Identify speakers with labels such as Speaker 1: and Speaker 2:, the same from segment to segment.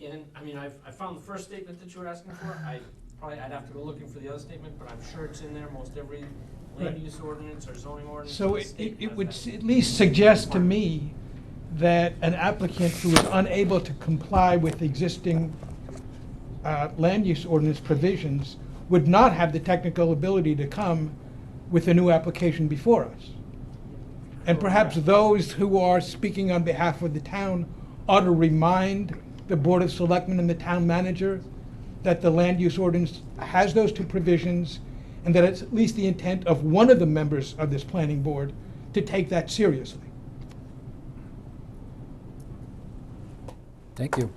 Speaker 1: in, I mean, I've, I found the first statement that you were asking for, I probably, I'd have to go looking for the other statement, but I'm sure it's in there, most every
Speaker 2: Right.
Speaker 1: land use ordinance or zoning ordinance. in
Speaker 2: So
Speaker 1: the
Speaker 2: it, it-
Speaker 1: state
Speaker 2: it
Speaker 1: has
Speaker 2: would
Speaker 1: that.
Speaker 2: s- at least suggest to me that an applicant who is unable to comply with existing uh, land use ordinance provisions would not have the technical ability to come with a new application before us. And perhaps
Speaker 1: Correct.
Speaker 2: those who are speaking on behalf of the town ought to remind the Board of Selectmen and the town manager that the land use ordinance has those two provisions, and that it's at least the intent of one of the members of this planning board to take that seriously.
Speaker 3: Thank you.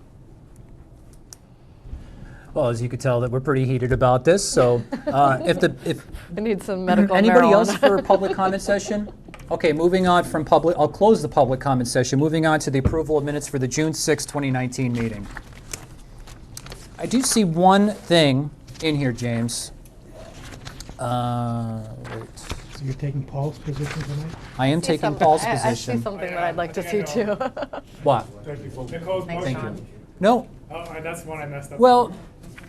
Speaker 3: Well, as you could tell, that we're pretty heated about this, so uh, if the, if
Speaker 4: I need some medical
Speaker 3: anybody else
Speaker 4: marijuana.
Speaker 3: for a public comment session? Okay, moving on from public, I'll close the public comment session, moving on to the approval of minutes for the June sixth, 2019 meeting. I do see one thing in here, James. Uh, wait.
Speaker 2: So you're taking Paul's position tonight?
Speaker 3: I am
Speaker 4: See
Speaker 3: taking
Speaker 4: some-
Speaker 3: Paul's
Speaker 4: I- I see
Speaker 3: position.
Speaker 4: something that I'd like to see
Speaker 5: I think I
Speaker 4: too.
Speaker 3: What?
Speaker 5: Nicole's
Speaker 4: Thank
Speaker 3: you.
Speaker 5: motion.
Speaker 3: No,
Speaker 5: Oh, and that's the one I messed up.
Speaker 3: Well,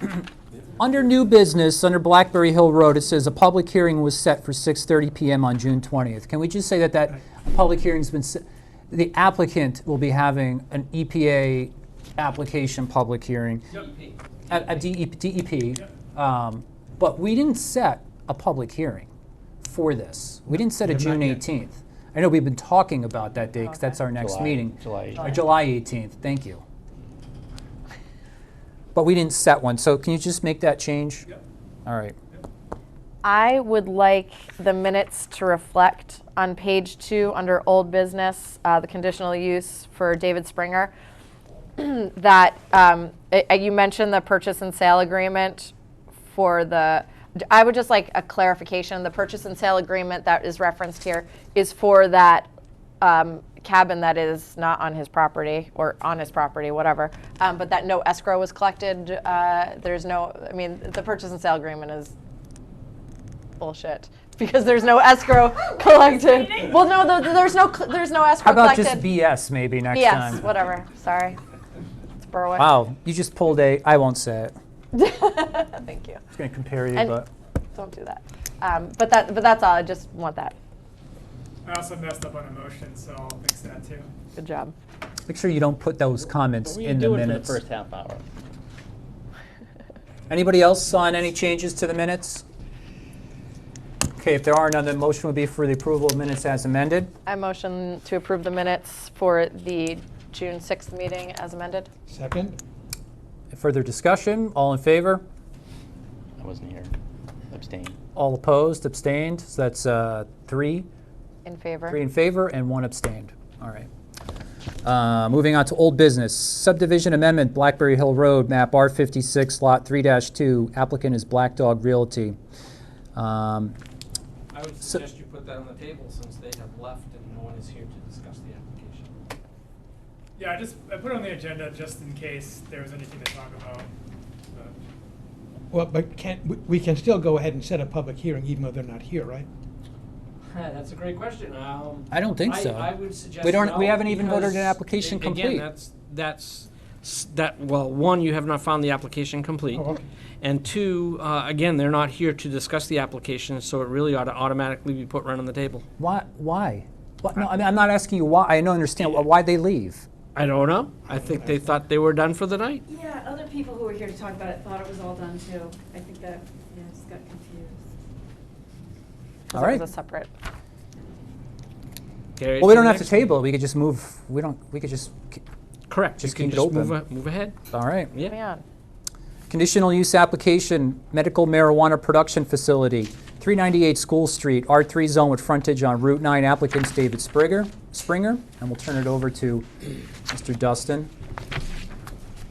Speaker 3: under new business, under Blackberry Hill Road, it says a public hearing was set for 6:30 PM on June 20th. Can we just say that that public hearing's been, se- the applicant will be having an EPA application public hearing
Speaker 1: DEP.
Speaker 3: at E at DEP, DEP, um, but we didn't set a public hearing for this. We didn't set a June 18th. I know we've been talking about that date, because that's our next
Speaker 6: July-
Speaker 3: meeting.
Speaker 6: July
Speaker 3: Uh,
Speaker 6: 18th.
Speaker 3: July 18th, thank you. But we didn't set one, so can you just make that change?
Speaker 5: Yep.
Speaker 3: All right.
Speaker 4: I would like the minutes to reflect on page two, under old business, uh, the conditional use for David Springer, that um, I- I- you mentioned the purchase and sale agreement for the, I would just like a clarification. The purchase and sale agreement that is referenced here is for that um, cabin that is not on his property or on his property, whatever, um, but that no escrow was collected. uh, There's no, I mean, the purchase and sale agreement is bullshit because there's no escrow collected. Well, no, th- th- there's no cl- there's no escrow
Speaker 3: How about
Speaker 4: collected.
Speaker 3: just BS maybe next
Speaker 4: yes,
Speaker 3: time?
Speaker 4: whatever. Sorry, it's Berwick.
Speaker 3: Wow, you just pulled a, I won't say it. I
Speaker 4: Thank you.
Speaker 3: was going to compare you,
Speaker 4: And-
Speaker 3: but.
Speaker 4: Don't do that. Um, but that but that's all. I just want that.
Speaker 5: I also messed up on emotion, so I'll fix that too.
Speaker 4: Good job.
Speaker 3: Make sure you don't put those comments
Speaker 6: We
Speaker 3: in
Speaker 6: can
Speaker 3: the
Speaker 6: do it for the
Speaker 3: minutes.
Speaker 6: first half hour.
Speaker 3: Anybody else on any changes to the minutes? Okay, if there are none, the motion would be for the approval of minutes as amended.
Speaker 4: I motion to approve the minutes for the June sixth meeting as amended.
Speaker 2: Second?
Speaker 3: Further discussion, all in favor?
Speaker 6: I wasn't here. Abstain.
Speaker 3: All opposed, abstained, so that's uh, three,
Speaker 4: In favor.
Speaker 3: three in favor and one abstained. All right. Uh, Moving on to old business, subdivision amendment, Blackberry Hill Road, map R56, lot 3-2, applicant is Black Dog Realty. Um,
Speaker 1: I would
Speaker 3: So-
Speaker 1: suggest you put that on the table since they have left and no one is here to discuss the application.
Speaker 5: Yeah, I just, I put it on the agenda just in case there was anything to talk about. but-
Speaker 2: Well, but can't, we- we can still go ahead and set a public hearing even though they're not here, right?
Speaker 1: That's a great question. Um,
Speaker 3: I don't think so.
Speaker 1: I would suggest
Speaker 3: We don't- we
Speaker 1: no,
Speaker 3: haven't even voted an
Speaker 1: because,
Speaker 3: application
Speaker 1: a-
Speaker 3: complete.
Speaker 1: Again, that's, that's, s- that, well, one, you have not found the application complete.
Speaker 2: Oh, okay.
Speaker 1: And two, uh, again, they're not here to discuss the application, so it really ought to automatically be put right on the table.
Speaker 3: Why? Why? What- No, I mean, I'm not asking you why, I don't understand why they leave.
Speaker 1: I don't know. I think they thought they were done for the night.
Speaker 7: Yeah, other people who were here to talk about it thought it was all done too. I think that, yeah, just got confused.
Speaker 4: 'Cause
Speaker 3: All
Speaker 4: it
Speaker 3: right.
Speaker 4: was a separate.
Speaker 1: Carry it
Speaker 3: Well, we
Speaker 1: to
Speaker 3: don't
Speaker 1: the
Speaker 3: have to
Speaker 1: next one.
Speaker 3: table it, we could just move, we don't, we could just,
Speaker 1: Correct.
Speaker 3: Just
Speaker 1: You can
Speaker 3: keep it
Speaker 1: just move,
Speaker 3: open.
Speaker 1: a- move ahead.
Speaker 3: all right.
Speaker 1: Yeah.
Speaker 4: Yeah.
Speaker 3: Conditional use application, medical marijuana production facility, 398 School Street, R3 zone with frontage on Route 9, applicants David Springer, Springer, and we'll turn it over to Mr. Dustin.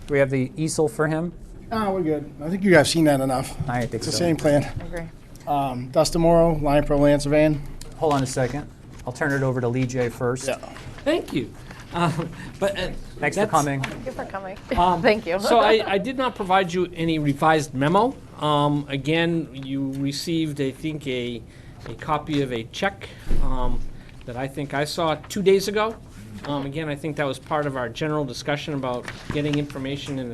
Speaker 3: Do we have the easel for him?
Speaker 8: Ah, we're good. I think you guys seen that enough.
Speaker 3: I think
Speaker 8: It's the
Speaker 3: so.
Speaker 8: same plan.
Speaker 4: I agree.
Speaker 8: Um, Dustin Morrow, Lion Pro Land Surveying.
Speaker 3: Hold on a second, I'll turn it over to Lee J. first.
Speaker 1: Thank you. Um, But. uh,
Speaker 3: Thanks for
Speaker 1: that's-
Speaker 3: coming.
Speaker 4: Thank you for coming.
Speaker 1: Um,
Speaker 4: Thank you.
Speaker 1: So I, I did not provide you any revised memo. Um, again, you received, I think, a, a copy of a check, um, that I think I saw two days ago. Um, again, I think that was part of our general discussion about getting information in a